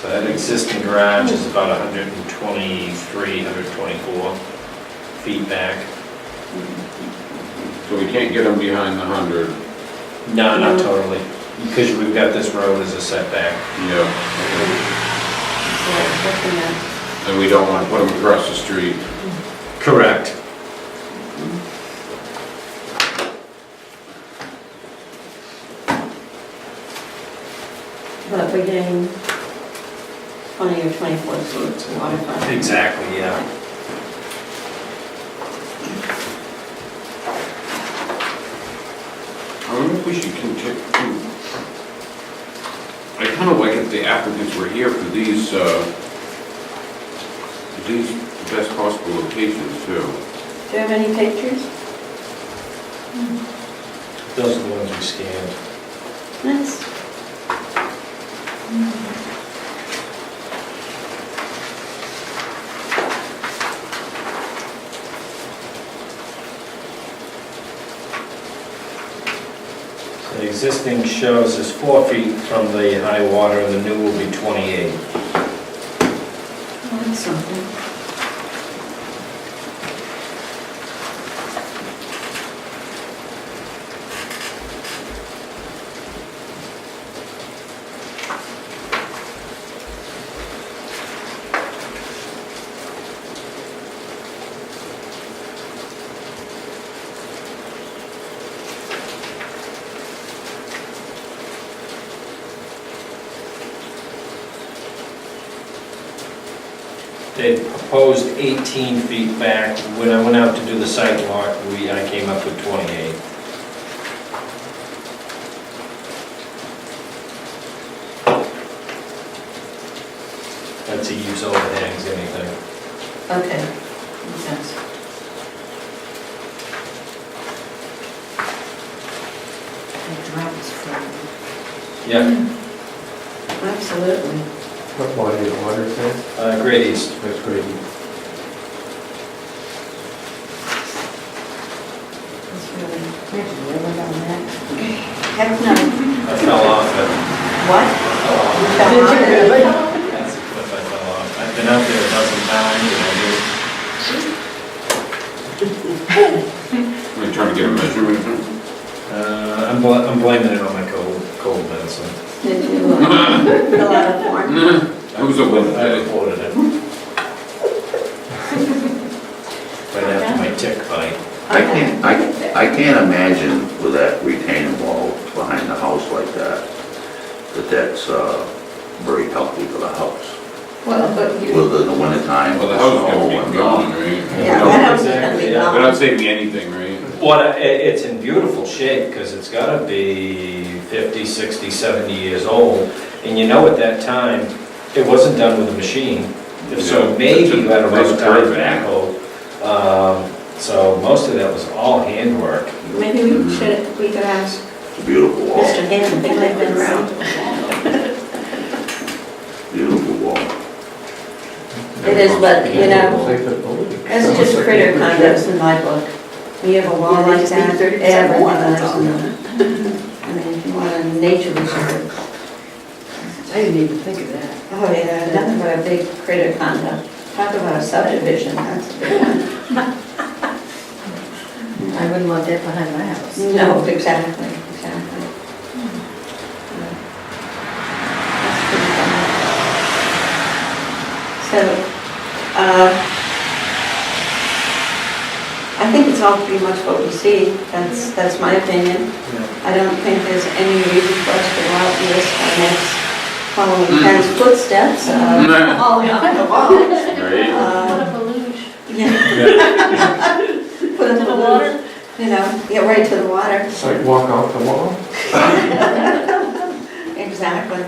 So that existing garage is about 123, 124 feet back. So we can't get them behind the hundred. No, not totally, because we've got this road as a setback. Yeah. looking at, And we don't wanna put them across the street. Correct. but we're getting twenty or twenty-four feet to waterfront. Exactly, yeah. I wonder if we should continue. I kind of like if the applicants were here for these, uh, these best possible locations too. Do you have any pictures? Those are the ones we scanned. Nice. So The existing shows is four feet from the high water, and the new will be 28. Oh, that's something. They proposed 18 feet back. When I went out to do the site walk, we, I came up with 28. That's a use overhangs anything. Okay, makes sense. It drops from. Yeah, Absolutely. What water is water, sir? uh, Great East. That's great. That's really, we have to live on that. Heck no. I fell off it. What? Fell off. Did you really? That's a cliff I fell off. I've been out there a dozen times, and I do We're trying to get a measurement. from- Uh, I'm, bl- I'm blaming it on my cold, cold medicine. Did you uh, fill out a form? It was a wet I day. recorded it. Right after my tick bite. I can't, I, I can't imagine with that retaining wall behind the house like that, that that's, uh, very healthy for the house. Well, but you, Whether in the wintertime, Well, the the house is snow gonna and be gone. gone, right? yeah, that house is gonna be Exactly, yeah. We're not gone. saving anything, right? What, I- it, it's in beautiful shape, because it's gotta be 50, 60, 70 years old. And you know, at that time, it wasn't done with a machine. If so Yeah, maybe it's a you had a nice rough time curve. backhoe. Um, So most of that was all handwork. Maybe we should, we could ask It's a beautiful wall, Mr. Hanson, if they've been around. beautiful wall. It is, but, you know, That's that's just critter condos in my book. You have a wall like that, everyone lives in it. I mean, if you want a nature reserve, I didn't even think of that. oh yeah, nothing but a big critter condo. Talk about a subdivision, that's a big one. I wouldn't want that behind my house. No, exactly, exactly. That's pretty funny. So, uh, I think it's all pretty much what we see, that's, that's my opinion. I don't think there's any reason for us to go out and risk our necks following Ken's footsteps, uh, falling off the wall. Right? Uh, Deluge. yeah, Put it in the water, you know, get right to the water, It's like walk off the wall. exactly.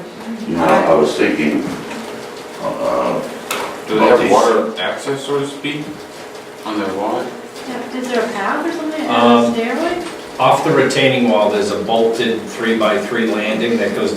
You know, I was thinking, uh, Do they have water access, so to speak, on their wall? Is there a path or something, Um, a stairway? Off the retaining wall, there's a bolted three-by-three landing that goes